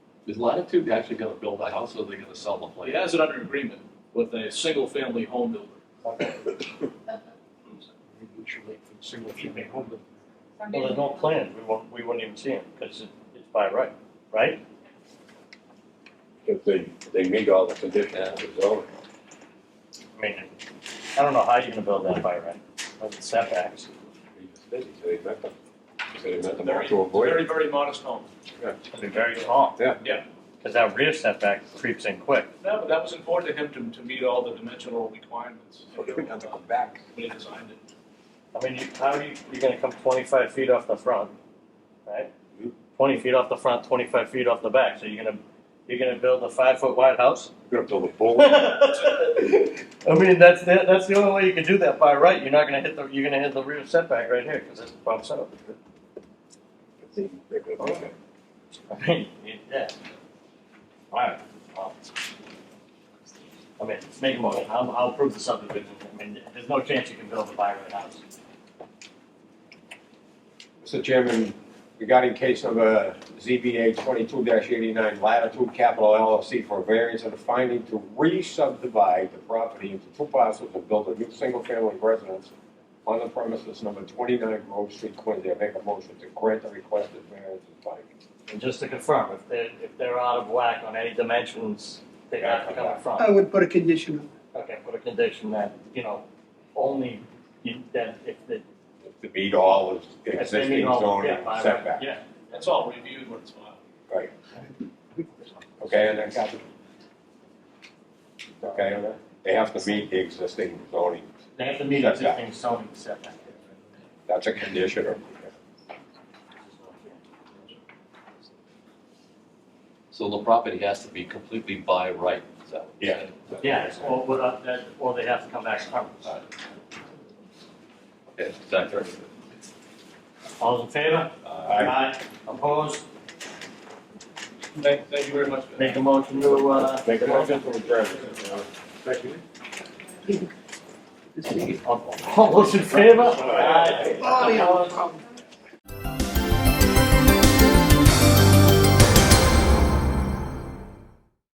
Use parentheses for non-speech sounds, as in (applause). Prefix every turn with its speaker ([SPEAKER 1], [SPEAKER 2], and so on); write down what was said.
[SPEAKER 1] Is Latitude actually gonna build a house or are they gonna sell the
[SPEAKER 2] Well, he
[SPEAKER 1] place?
[SPEAKER 2] has it under agreement with a single-family home builder.
[SPEAKER 3] Usually for single family home. building.
[SPEAKER 4] Well, there's no plans, we won't, we wouldn't even see them, because it's by right, right?
[SPEAKER 5] if they, they meet all the conditions of the zoning.
[SPEAKER 4] I mean, I don't know how you're gonna build that by right, with the setbacks.
[SPEAKER 5] He just said, he said he met them, he said he met them all
[SPEAKER 2] Very,
[SPEAKER 5] to avoid
[SPEAKER 2] very,
[SPEAKER 5] it.
[SPEAKER 2] very modest home.
[SPEAKER 4] It's gonna be very small.
[SPEAKER 5] Yeah.
[SPEAKER 2] Yeah.
[SPEAKER 4] Because that rear setback creeps in quick.
[SPEAKER 2] No, but that was important to him to, to meet all the dimensional requirements.
[SPEAKER 5] So he would have to come back.
[SPEAKER 2] When he designed it.
[SPEAKER 4] I mean, you, how are you, you're gonna come twenty-five feet off the front, right?
[SPEAKER 5] Mhm.
[SPEAKER 4] Twenty feet off the front, twenty-five feet off the back, so you're gonna, you're gonna build a five-foot wide house?
[SPEAKER 5] You're gonna build a pool,
[SPEAKER 4] (laughs) I mean, that's, the- that's the only way you can do that by right, you're not gonna hit the, you're gonna hit the rear setback right here, because it bumps out.
[SPEAKER 5] if they, they could have done it.
[SPEAKER 4] (laughs) I mean, yeah. Alright, well. I mean, make a motion, I'll, I'll prove the subdivision, I mean, there's no chance you can build a by right house.
[SPEAKER 6] Mr. Chairman, regarding case number ZBA twenty-two eighty-nine, Latitude Capital LLC for variance and a finding to re-subdivide the property into two parcels and build a new single-family residence on the premises number twenty-nine Grove Street, Quincy. I make a motion to grant the requested variance and finding.
[SPEAKER 4] And just to confirm, if they're, if they're out of whack on any dimensions, they have to come in
[SPEAKER 7] I
[SPEAKER 4] front.
[SPEAKER 7] would put a condition on
[SPEAKER 4] Okay, put a condition that, you know, only, you- that if the,
[SPEAKER 6] To meet all of the
[SPEAKER 4] if they
[SPEAKER 6] existing
[SPEAKER 4] meet all,
[SPEAKER 6] zoning
[SPEAKER 4] yeah, by right,
[SPEAKER 6] setbacks.
[SPEAKER 4] yeah.
[SPEAKER 2] That's all reviewed when it's filed.
[SPEAKER 6] Okay, and then got Okay, and then they have to meet the existing zoning.
[SPEAKER 4] They have to meet
[SPEAKER 6] Setback.
[SPEAKER 4] existing zoning setback.
[SPEAKER 6] That's a condition of.
[SPEAKER 1] So the property has to be completely by right, is that what you're
[SPEAKER 6] Yeah.
[SPEAKER 1] saying?
[SPEAKER 4] Yeah, it's- or, without that- or they have to come back.
[SPEAKER 1] Yeah, exactly.
[SPEAKER 4] All in favor?
[SPEAKER 6] Uh,
[SPEAKER 4] Opposed?
[SPEAKER 2] Thank, thank you very much. Ben.
[SPEAKER 4] Make a motion to, uh.
[SPEAKER 5] Make a motion to adjourn.
[SPEAKER 7] this.
[SPEAKER 4] All those in favor?
[SPEAKER 7] Oh, yeah, no problem.